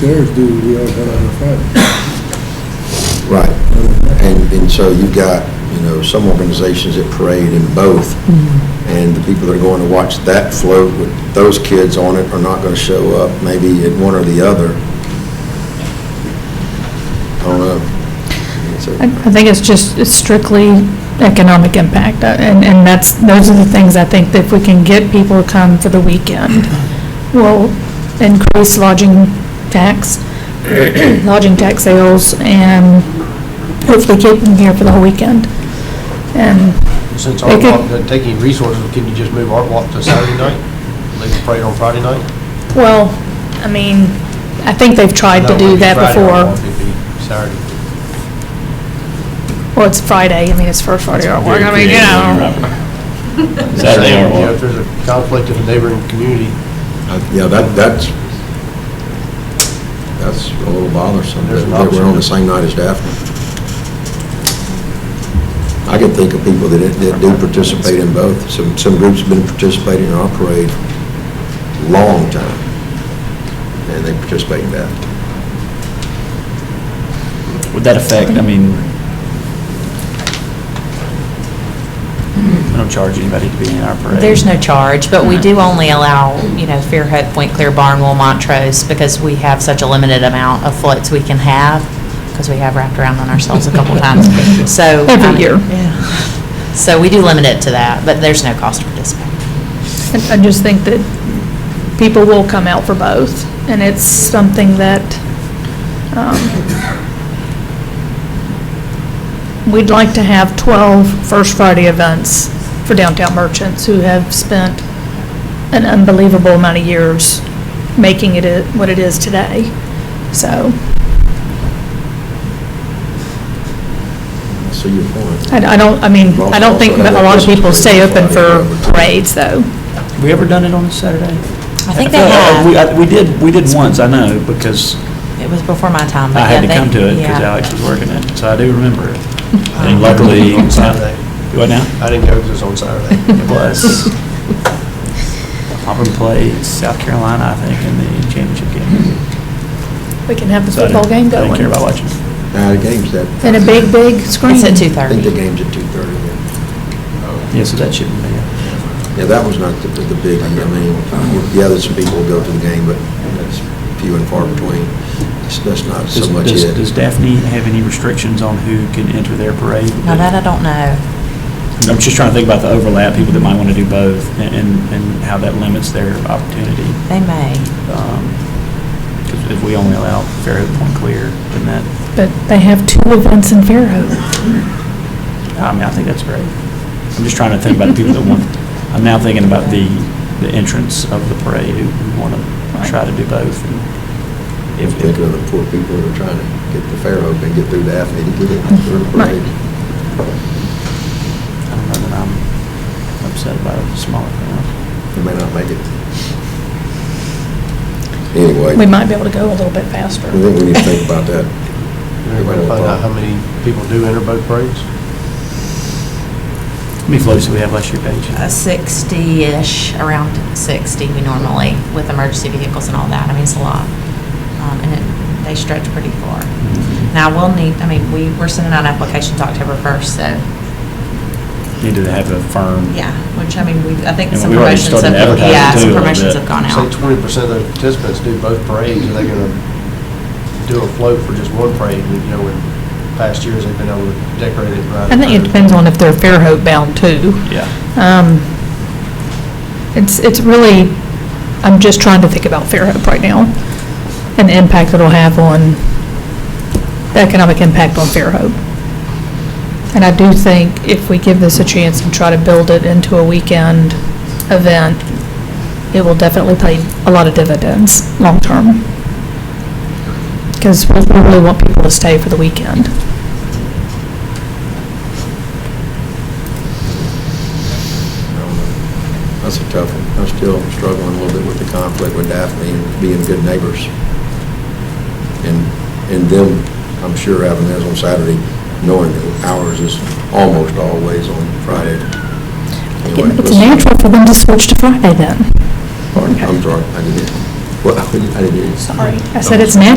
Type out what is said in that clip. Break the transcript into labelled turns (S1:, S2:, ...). S1: theirs due, we all got on the Friday.
S2: Right. And, and so you've got, you know, some organizations that parade in both, and the people that are going to watch that float with those kids on it are not going to show up, maybe at one or the other. I don't know. It's
S3: I
S2: a-
S3: I think it's just it's strictly economic impact, uh, and, and that's, those are the things I think that if we can get people to come for the weekend, will increase lodging tax, lodging tax sales, and hopefully keep them here for the whole weekend. And
S4: Since
S3: They
S4: Art
S3: could-
S4: Walk doesn't take any resources, can you just move Art Walk to Saturday night? Leave the parade on Friday night?
S3: Well, I mean, I think they've tried to
S4: No, it'd
S3: do
S4: be
S3: that
S4: Friday, Art Walk
S3: before.
S4: would be Saturday.
S3: Well, it's Friday, I mean, it's for Friday artwork, I mean, you know.
S5: Saturday Art
S4: Yeah, If
S5: Walk.
S4: there's a conflict in the neighboring community,
S2: Uh, Yeah, that, that's, that's a little bothersome,
S4: There's an
S2: that we're on
S4: option.
S2: the same night as Daphne. I can think of people that, that do participate in both. Some, some groups have been participating in our parade long time, and they participate in that.
S5: Would that affect, I mean, I don't charge anybody to be in our parade.
S6: There's no charge, but we
S5: Right.
S6: do only allow, you know, Fairhope, Point Clear, Barnwell, Montrose, because we have such a limited amount of floats we can have, because we have wrapped around on ourselves a couple times, so.
S3: Every
S6: um,
S3: year.
S6: yeah. So we do limit it to that, but there's no cost to participate.
S3: And I just think that people will come out for both, and it's something that, um, we'd like to have 12 First Friday events for downtown merchants who have spent an unbelievable amount of years making it i- what it is today, so.
S2: I see your point.
S3: I I don't, I mean, I don't think that a lot of people stay open for parades, though.
S5: Have we ever done it on a Saturday?
S6: I think they
S5: Uh, We,
S6: have,
S5: I- we did, we did once, I know, because
S6: it was before my time, but
S5: I
S6: yeah,
S5: had
S6: they.
S5: to come to it because
S6: yeah. Um,
S5: Alex was working it, so I do remember it. And
S4: I remember
S5: luckily,
S4: it on
S5: uh,
S4: Saturday.
S5: what now?
S4: I didn't go because it was on Saturday.
S5: It was. Auburn played South Carolina, I think, in the championship game.
S3: We can have the
S5: So I
S3: football game
S5: didn't- I
S3: going.
S5: didn't care about watching.
S2: Now, the game's that,
S3: And a big, big screen.
S6: It's at
S2: I think the
S6: 2:30.
S2: game's at 2:30. then.
S5: Yeah, so that shouldn't be. a-
S2: Yeah, that was not the, the big, I mean, yeah, there's some people who go to the game, but that's few and far between. That's- That's not so
S5: Does-
S2: much
S5: does-
S2: it.
S5: Does Daphne have any restrictions on who can enter their parade?
S6: Now, that I don't know.
S5: I'm just trying to think about the overlap, people that might want to do both, and- and, and how that limits their opportunity.
S6: They may.
S5: Because if we only allow Fairhope Point Clear, then that,
S3: But they have two events in Fairhope.
S5: I mean, I think that's great. I'm just trying to think about the people that want, I'm now thinking about the, the entrance of the parade, who- who want to try to do both. and
S2: I'm
S5: If,
S2: thinking of the poor people who are trying to get to Fairhope and get through Daphne to get in for the
S3: Right.
S2: parade.
S5: I don't know that I'm upset about a smaller crowd.
S2: They may not make it. Anyway,
S3: We
S2: I
S3: might be able to go a little bit faster.
S2: think we need to think about that.
S4: Anybody find out how many people do enter both parades?
S5: How many floats do we have last year, Paige?
S6: uh, 60-ish, around 60 we normally, with emergency vehicles and all that. I mean, it's a lot. Um, And it- they stretch pretty far. Now, we'll need, I mean, we, we're sending out applications October 1st, so,
S5: Need to have a firm.
S6: yeah, which, I mean, we, I think
S5: And
S6: some
S5: we've already
S6: promotions
S5: started
S6: have,
S5: advertising
S6: yeah,
S5: too, a
S6: some
S5: little
S6: promotions
S5: bit.
S6: have gone
S4: Say
S6: out.
S4: twenty percent of the participants do both parades, are they gonna do a float for just one parade? You know, in past years, they've been able to decorate it right.
S3: I think it depends on if they're Fairhope bound too.
S5: Yeah.
S3: Um, It's, it's really, I'm just trying to think about Fairhope right now and the impact it'll have on, the economic impact on Fairhope. And I do think if we give this a chance and try to build it into a weekend event, it will definitely pay a lot of dividends long-term. Because we really want people to stay for the weekend.
S2: That's a tough one. I'm still struggling a little bit with the conflict with Daphne and being good neighbors. And, and them, I'm sure having theirs on Saturday, knowing that ours is almost always on Friday. Anyway,
S3: It's
S2: let's-
S3: natural for them to switch to Friday then.
S2: Pardon, I'm sorry, I didn't, hear- well, I didn't hear you.
S3: Sorry. I said it's natural